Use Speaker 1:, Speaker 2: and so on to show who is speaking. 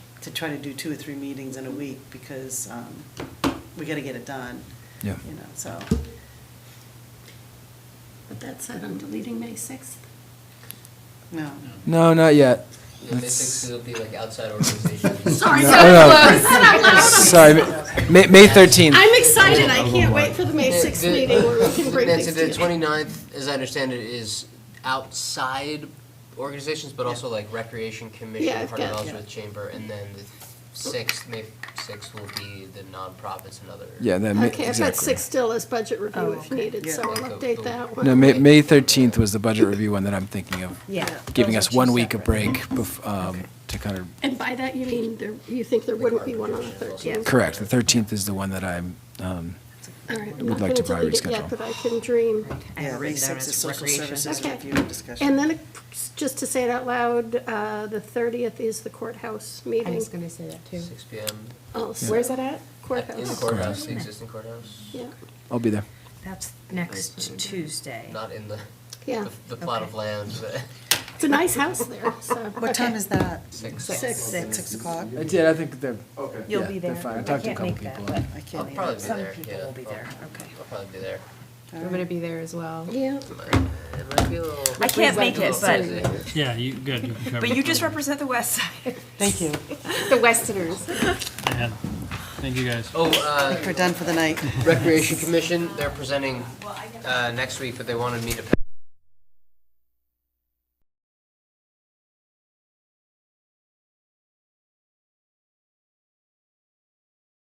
Speaker 1: to try to do two or three meetings in a week because um, we got to get it done.
Speaker 2: Yeah.
Speaker 1: You know, so,
Speaker 3: But that said, I'm deleting May 6th.
Speaker 1: no.
Speaker 2: No, not yet.
Speaker 4: The mystics will be like outside organizations.
Speaker 3: Sorry,
Speaker 2: No,
Speaker 3: so
Speaker 2: no.
Speaker 3: close. Said out loud.
Speaker 2: Sorry, May, May 13th.
Speaker 3: I'm excited. I can't wait for the May 6th meeting where we can bring
Speaker 4: Nancy,
Speaker 3: things
Speaker 4: the
Speaker 3: together.
Speaker 4: 29th, as I understand it, is outside organizations, but also like Recreation
Speaker 3: Yeah,
Speaker 4: Commission,
Speaker 3: I've
Speaker 4: part of
Speaker 3: got-
Speaker 4: Ellsworth Chamber, and then the 6th, May 6th will be the nonprofits and other.
Speaker 2: Yeah, that May,
Speaker 3: Okay, I've got
Speaker 2: exactly.
Speaker 3: six still as budget
Speaker 5: Oh,
Speaker 3: review if needed, so I'll
Speaker 4: Yeah.
Speaker 3: update that one.
Speaker 2: No, May, May 13th was the budget review one that I'm thinking of,
Speaker 5: Yeah.
Speaker 2: giving
Speaker 5: those
Speaker 2: us
Speaker 5: are two
Speaker 2: one week of
Speaker 5: separate.
Speaker 2: break bef- um, to kind of,
Speaker 3: And by that, you mean there, you think there wouldn't be one on the 13th?
Speaker 2: correct. The 13th is the one that I'm, um,
Speaker 3: All right, I'm
Speaker 2: Would like
Speaker 3: not going
Speaker 2: to
Speaker 3: to
Speaker 2: probably
Speaker 3: delete it yet,
Speaker 2: reschedule.
Speaker 3: but I can dream.
Speaker 5: I have
Speaker 1: Yeah, May
Speaker 5: it written
Speaker 1: 6th
Speaker 5: down as
Speaker 1: is social
Speaker 5: recreation.
Speaker 1: services
Speaker 3: Okay.
Speaker 1: review and discussion.
Speaker 3: And then, just to say it out loud, uh, the 30th is the courthouse
Speaker 5: I
Speaker 3: meeting.
Speaker 5: was gonna say that too.
Speaker 4: 6 PM.
Speaker 3: also.
Speaker 5: Where's that at?
Speaker 4: at- In the
Speaker 3: Courthouse.
Speaker 4: courthouse, the existing courthouse,
Speaker 3: Yeah,
Speaker 2: I'll be there.
Speaker 5: That's next Tuesday.
Speaker 4: not in the,
Speaker 3: yeah.
Speaker 4: the- the plot of land, but.
Speaker 3: It's a nice house there, so.
Speaker 1: What time
Speaker 3: okay.
Speaker 1: is that?
Speaker 4: Six.
Speaker 5: Six.
Speaker 1: Six o'clock?
Speaker 2: I did, I think they're, Yeah,
Speaker 5: You'll be
Speaker 2: they're
Speaker 5: there.
Speaker 2: fine. I talked to a
Speaker 5: can't make
Speaker 2: couple
Speaker 5: that,
Speaker 2: people.
Speaker 5: but
Speaker 1: I can't
Speaker 4: I'll probably be
Speaker 5: Some
Speaker 4: there,
Speaker 5: people
Speaker 4: yeah.
Speaker 5: will be there, okay.
Speaker 4: I'll probably be there.
Speaker 5: I'm gonna be there as well.
Speaker 3: Yeah,
Speaker 4: It might be a little.
Speaker 6: I can't make it,
Speaker 4: Little
Speaker 6: but,
Speaker 4: busy.
Speaker 7: Yeah, you, good, you can cover.
Speaker 6: but you just represent the west side.
Speaker 1: Thank you.
Speaker 5: The Westerners.
Speaker 7: Yeah. Thank you, guys.
Speaker 4: Oh, uh,
Speaker 1: We're done for the night.
Speaker 4: Recreation Commission, they're presenting uh, next week, but they wanted me to